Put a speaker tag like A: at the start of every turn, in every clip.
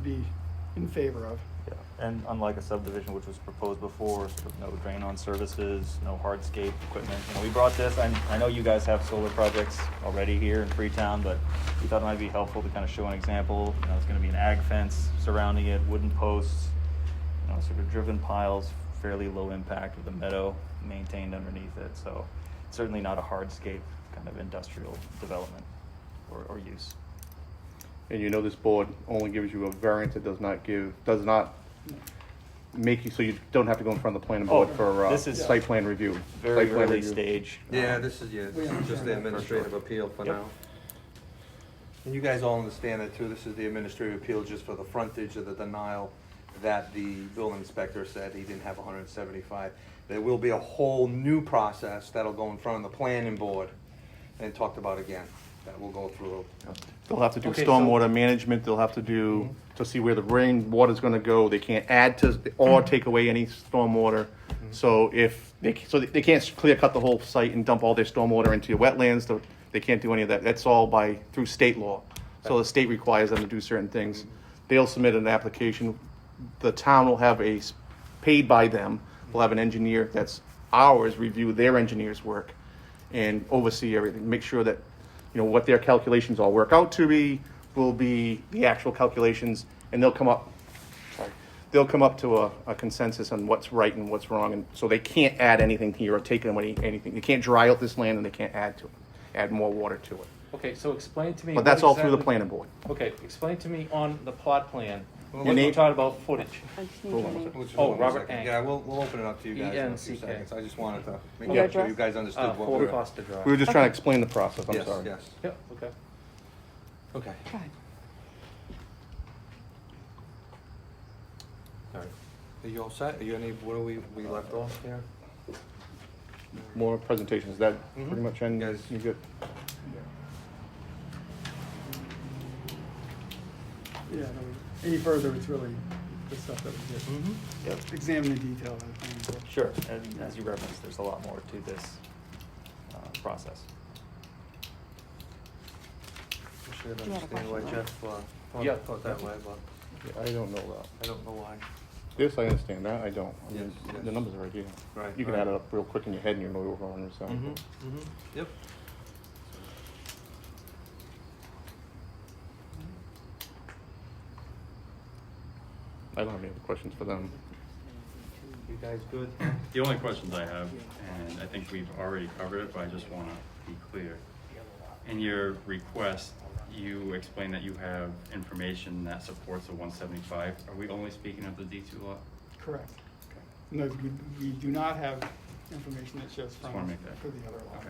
A: be in favor of.
B: Yeah, and unlike a subdivision which was proposed before, sort of no drain on services, no hardscape equipment, you know, we brought this, I, I know you guys have solar projects already here in Freetown, but we thought it might be helpful to kind of show an example, you know, it's gonna be an ag fence surrounding it, wooden posts, you know, sort of driven piles, fairly low impact with a meadow maintained underneath it, so certainly not a hardscape kind of industrial development or, or use.
C: And you know this board only gives you a variance, it does not give, does not make you, so you don't have to go in front of the planning board
B: Oh,
C: for, uh,
B: this is-
C: site plan review.
B: Very
C: Site plan
B: early
C: review.
B: stage.
D: Yeah,
B: um,
D: this is, yeah,
A: We
D: this is just
A: understand that
D: the
A: for sure.
D: administrative appeal for
B: Yep.
D: now. And you guys all understand that too, this is the administrative appeal just for the frontage of the denial that the building inspector said he didn't have hundred and seventy-five. There will be a whole new process that'll go in front of the planning board and talked about again, that we'll go through.
C: They'll have to do
D: Okay, so-
C: stormwater management, they'll have to do, to see where the rain water's gonna go, they can't add to, or take away any stormwater. So if, they, c- so they- they can't clear cut the whole site and dump all their stormwater into your wetlands, they- they can't do any of that, that's all by, through state law. So the state requires them to do certain things. They'll submit an application, the town will have a, s- paid by them, will have an engineer that's ours review their engineer's work and oversee everything, make sure that, you know, what their calculations all work out to be, will be the actual calculations, and they'll come up, sorry, they'll come up to a, a consensus on what's right and what's wrong, and so they can't add anything here or take away anything, they can't dry out this land and they can't add to it, add more water to it.
E: Okay, so explain to me.
C: But that's
E: what
C: all through the
E: exactly-
C: planning board.
E: Okay, explain to me on the plot plan,
D: Your
E: when you
C: name?
E: talked about footage.
F: I just need
C: Hold
F: your
C: on a
F: name.
D: Which is
E: Oh,
D: one
E: Robert E
D: second.
E: Eng.
D: Yeah, we'll, we'll open it up to you guys in a few
E: E-N-C-K.
D: seconds. I just wanted to
F: Your
D: make sure you
F: address?
D: guys
E: Uh,
D: understood what
E: four
D: we're.
E: Foster Drive.
C: We were just trying to
F: Okay.
C: explain the process, I'm
D: Yes,
C: sorry.
D: yes,
E: Yep, okay.
D: okay.
F: Go ahead.
D: All right. Are you all set? Are you any, where we, we left off here?
C: More presentations, that
D: Mhm.
C: pretty much end,
D: Guys.
C: you good?
A: Yeah, no, we- any further, it's really the stuff that we get.
D: Mm-hmm.
B: Yep.
A: Examine the detail of the planning board.
B: Sure, and as you referenced, there's a lot more to this uh, process.
D: I should
F: You had a
D: understand why
F: question, right?
D: Jeff, uh,
E: Yeah.
D: thought, thought that way, but
C: Yeah, I don't know that.
D: I don't know why.
C: This, I understand, that I don't. I mean,
D: Yes, yes.
C: The numbers are right here.
D: Right,
C: You can
D: right.
C: add it up real quick in your head and you know what we're on yourself.
D: Mm-hmm, mm-hmm, yep.
C: I don't have any other questions for them.
D: You guys good?
G: The only questions I have, and I think we've already covered it, but I just want to be clear. In your request, you explain that you have information that supports the one seventy-five. Are we only speaking of the D two lot?
A: Correct. No, we, we do not have information that shows from,
G: wanna make that-
A: for the other lot.
G: Okay.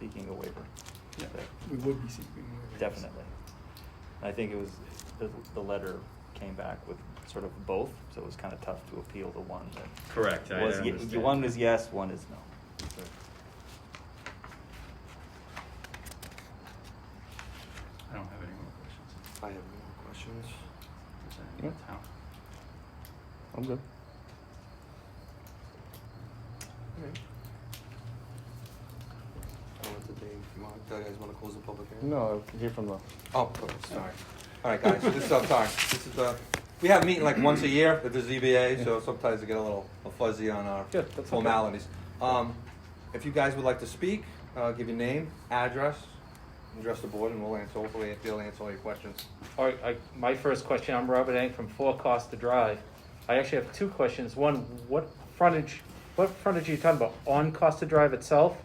B: Seeking a waiver.
A: Yeah,
B: There,
A: we would be seeking. waivers.
B: Definitely. I think it was, the, the letter came back with sort of both, so it was kind of tough to appeal the one that
G: Correct, I I
B: was, ye-
G: understand.
B: one is yes, one is no.
G: I don't have any more questions.
D: I have no more questions.
G: Is there any in
C: Yeah.
G: town?
C: I'm good.
D: I'll let the Dave, you want, you guys wanna close the public hearing?
C: No, I can hear from the,
D: Oh, oh, sorry. All right, guys, so this is, our time. this is, uh, we have a meeting like once a year at the ZBA, so sometimes I get a little fuzzy on our
E: Yeah, that's okay.
D: formalities. Um, if you guys would like to speak, uh, give your name, address, and address the board, and we'll answer, hopefully, they'll answer all your questions.
E: All right, I, my first question, I'm Robert Eng from Four Costa Drive. I actually have two questions. One, what frontage, what frontage are you talking about? On Costa Drive itself?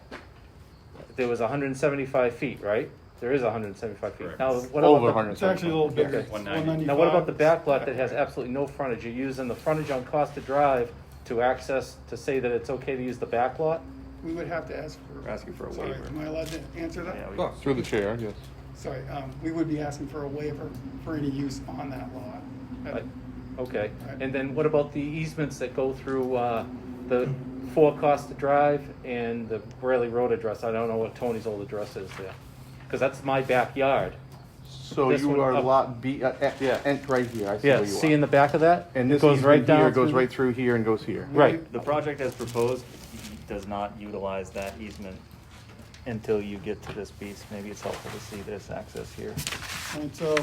E: There was hundred and seventy-five feet, right? There is hundred and seventy-five feet.
G: Correct.
E: Now, what about
C: over
E: the-
C: hundred and
A: It's actually a
C: seventy-five.
A: little bigger.
E: Okay.
A: It's
G: 190.
E: Now, what about the
A: 195.
E: back lot that has absolutely no frontage? You're using the frontage on Costa Drive to access, to say that it's okay to use the back lot?
A: We would have to ask for.
B: We're asking for a
A: Sorry,
B: waiver.
A: Am I allowed to answer that?
B: Yeah, we-
D: Look,
C: Through the chair, yes.
A: Sorry, um, we would be asking for a waiver for any use on that lot.
E: I- Okay,
A: Right.
E: and then what about the easements that go through uh, the Four Costa Drive and the Braley Road address? I don't know what Tony's old address is there, because that's my backyard.
C: So
E: This one
C: you are
E: up.
C: lot B, uh, eh, yeah, and right here, I see where
E: Yeah,
C: you are.
E: see in the back of that?
C: And
E: It
C: this
E: goes right
C: easement here
E: down
C: goes
E: through-
C: right through here and goes here.
E: Right,
B: The project as proposed does not utilize that easement until you get to this piece. Maybe it's helpful to see this access here.
A: Until